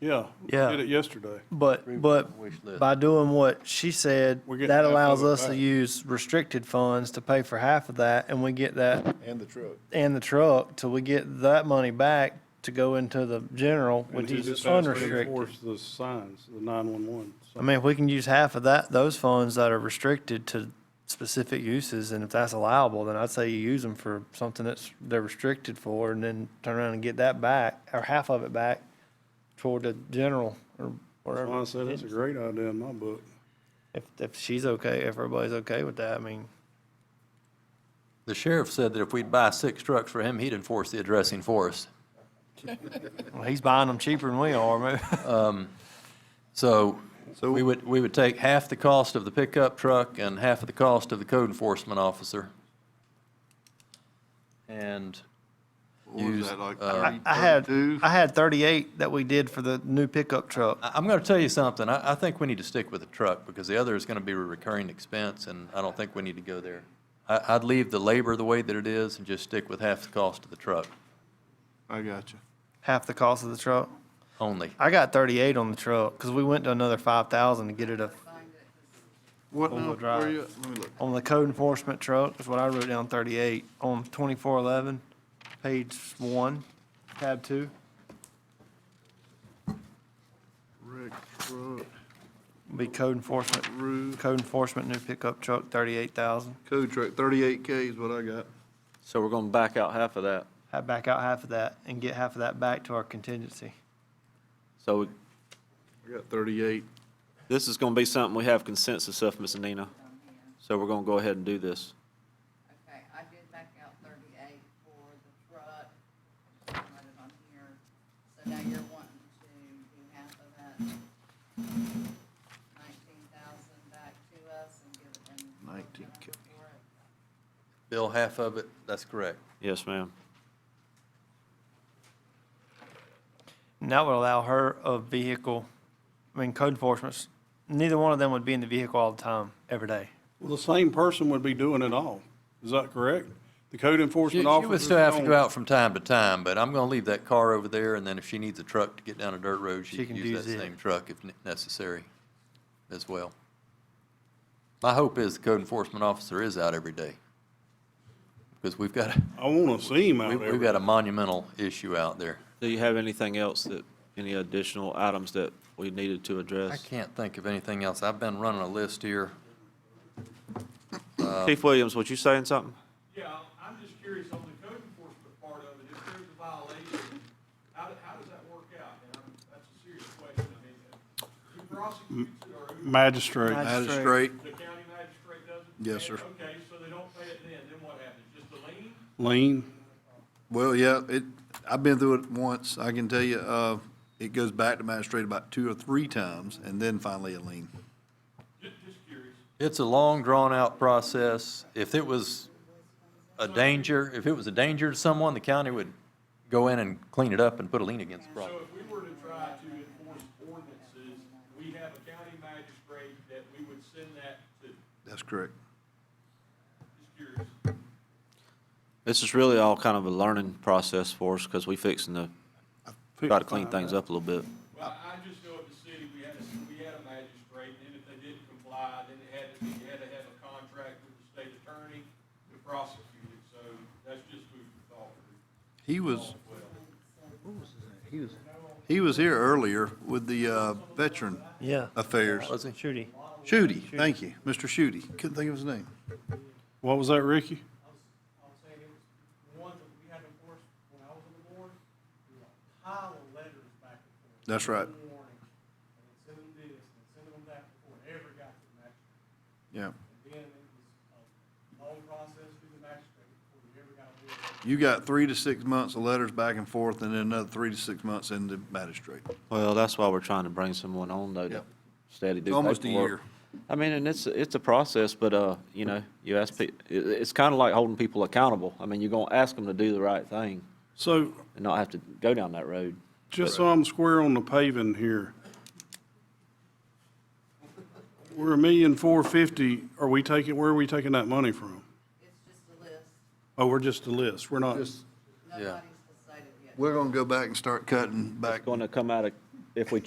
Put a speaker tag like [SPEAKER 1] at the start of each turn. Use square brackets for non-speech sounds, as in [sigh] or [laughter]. [SPEAKER 1] Yeah. we
[SPEAKER 2] Yeah.
[SPEAKER 1] Did it yesterday.
[SPEAKER 2] But, but by doing what she said,
[SPEAKER 1] We're getting
[SPEAKER 2] that
[SPEAKER 1] half of
[SPEAKER 2] allows
[SPEAKER 1] it
[SPEAKER 2] us to
[SPEAKER 1] back.
[SPEAKER 2] use restricted funds to pay for half of that, and we get that
[SPEAKER 3] And the truck.
[SPEAKER 2] and the truck till we get that money back to go into the general,
[SPEAKER 1] And
[SPEAKER 2] which
[SPEAKER 1] he just
[SPEAKER 2] is
[SPEAKER 1] asked to
[SPEAKER 2] unrestricted.
[SPEAKER 1] Enforce the signs, the 911.
[SPEAKER 2] I mean, if we can use half of that, those funds that are restricted to specific uses, and if that's allowable, then I'd say you use them for something that's, they're restricted for, and then turn around and get that back, or half of it back toward the general, or
[SPEAKER 1] That's
[SPEAKER 2] wherever.
[SPEAKER 1] why I said it's a great idea in my book.
[SPEAKER 2] If, if she's okay, if everybody's okay with that, I mean,
[SPEAKER 4] The sheriff said that if we'd buy six trucks for him, he'd enforce the addressing for us.
[SPEAKER 2] well, he's buying them cheaper than we are. man.
[SPEAKER 4] So we would, we would take half the cost of the pickup truck and half of the cost of the code enforcement officer. And use, uh,
[SPEAKER 2] [laughs] I had, I had thirty-eight that we did for the new pickup truck.
[SPEAKER 4] I- I'm going to tell you something. I, I think we need to stick with the truck because the other is going to be a recurring expense and I don't think we need to go there. I, I'd leave the labor the way that it is and just stick with half the cost of the truck
[SPEAKER 3] I got you.
[SPEAKER 2] Half the cost of the truck.
[SPEAKER 4] only.
[SPEAKER 2] I got thirty-eight on the truck, cause we went to another five thousand to get it a,
[SPEAKER 3] What
[SPEAKER 2] Four-wheel
[SPEAKER 3] now, where
[SPEAKER 2] drive.
[SPEAKER 3] you at? Let me look.
[SPEAKER 2] on the code enforcement truck, is what I wrote down, thirty-eight, on twenty-four eleven, page one, tab two.
[SPEAKER 3] Rick, truck,
[SPEAKER 2] Be code enforcement,
[SPEAKER 3] roof,
[SPEAKER 2] code enforcement new pickup truck, thirty-eight thousand.
[SPEAKER 3] code truck, thirty-eight K is what I got.
[SPEAKER 5] So we're gonna back out half of that.
[SPEAKER 2] I back out half of that and get half of that back to our contingency.
[SPEAKER 5] So
[SPEAKER 3] I got thirty-eight.
[SPEAKER 5] this is gonna be something we have consensus of, Ms. Nina. So we're gonna go ahead and do this.
[SPEAKER 6] Okay, I did back out thirty-eight for the truck, I just wrote it on here, so now you're wanting to do half of that nineteen thousand back to us and give it in.
[SPEAKER 3] 19K.
[SPEAKER 4] Bill, half of it, that's correct.
[SPEAKER 5] Yes, ma'am.
[SPEAKER 2] And that would allow her a vehicle, I mean, code enforcement, neither one of them would be in the vehicle all the time, every day.
[SPEAKER 1] Well, the same person would be doing it all. Is that correct? The code
[SPEAKER 4] She
[SPEAKER 1] enforcement
[SPEAKER 4] she
[SPEAKER 1] officer.
[SPEAKER 4] would still have to go out from time to time, but I'm gonna leave that car over there, and then if she needs a truck to get down a dirt road, she can use that
[SPEAKER 2] it.
[SPEAKER 4] same truck if ne- necessary as well. My hope is the code enforcement officer is out every day, because we've got, a-
[SPEAKER 1] I want to see him
[SPEAKER 4] we-
[SPEAKER 1] out
[SPEAKER 4] we've
[SPEAKER 1] there.
[SPEAKER 4] got a monumental issue out there.
[SPEAKER 5] Do you have anything else that, any additional items that we needed to
[SPEAKER 4] I
[SPEAKER 5] address?
[SPEAKER 4] can't think of anything else. I've been running a list here.
[SPEAKER 5] Uh, Chief Williams, was you saying something?
[SPEAKER 7] Yeah, I'm just curious on the code enforcement part of it, if there's a violation, how, do- how does that work out? And I'm, that's a serious question, I mean, who prosecutes it or who,
[SPEAKER 1] Magistrate.
[SPEAKER 2] Magistrate.
[SPEAKER 7] the county magistrate doesn't?
[SPEAKER 3] Yes, sir.
[SPEAKER 7] Okay, so they don't pay it then, then what happens? Just a lien?
[SPEAKER 1] Lean.
[SPEAKER 8] Well, yeah, it, I've been through it once. I can tell you, uh, it goes back to magistrate about two or three times and then finally a lien.
[SPEAKER 7] Just, just curious.
[SPEAKER 4] It's a long, drawn-out process. If it was a danger, if it was a danger to someone, the county would go in and clean it up and put a lien against the property.
[SPEAKER 7] So if we were to try to enforce ordinances, we have a county magistrate that we would send that to,
[SPEAKER 8] That's correct.
[SPEAKER 7] just curious.
[SPEAKER 5] This is really all kind of a learning process for us, because we fixing to try to clean things up a little bit.
[SPEAKER 7] Well, I I just know at the city, we had a, we had a magistrate, and then if they didn't comply, then it had to be, you had to have a contract with the state attorney to prosecute it, so that's just food for thought.
[SPEAKER 8] He was, he was here earlier with the, uh, Veteran
[SPEAKER 2] Yeah,
[SPEAKER 8] Affairs.
[SPEAKER 4] Was he?
[SPEAKER 2] Shooty.
[SPEAKER 8] Shooty, thank you, Mr. Shooty. Couldn't think of his name.
[SPEAKER 1] What was that, Ricky?
[SPEAKER 9] I was saying it was, the ones that we had to enforce when I was on the board, we had a pile of letters back and forth.
[SPEAKER 8] That's right.
[SPEAKER 9] Warnings, and then send them this, and send them that before it ever got to the magistrate.
[SPEAKER 8] Yeah.
[SPEAKER 9] And then it was a long process through the magistrate before we ever got to it.
[SPEAKER 8] You got three to six months of letters back and forth and then another three to six months into magistrate.
[SPEAKER 5] Well, that's why we're trying to bring someone on though to
[SPEAKER 8] Yep.
[SPEAKER 5] steady do
[SPEAKER 8] Almost a
[SPEAKER 5] paperwork.
[SPEAKER 8] year.
[SPEAKER 5] I mean, and it's, it's a process, but, uh, you know, you ask peo- i it's kind of like holding people accountable. I mean, you're gonna ask them to do the right thing
[SPEAKER 1] So
[SPEAKER 5] and not have to go down that road.
[SPEAKER 1] Just so I'm square on the paving here. We're a million four fifty, are we taking, where are we taking that money from?
[SPEAKER 6] It's just a list,
[SPEAKER 1] Oh, we're just a list, we're not,
[SPEAKER 8] Just,
[SPEAKER 6] nobody's decided yet.
[SPEAKER 8] we're gonna go back and start cutting back.
[SPEAKER 5] It's gonna come out of if we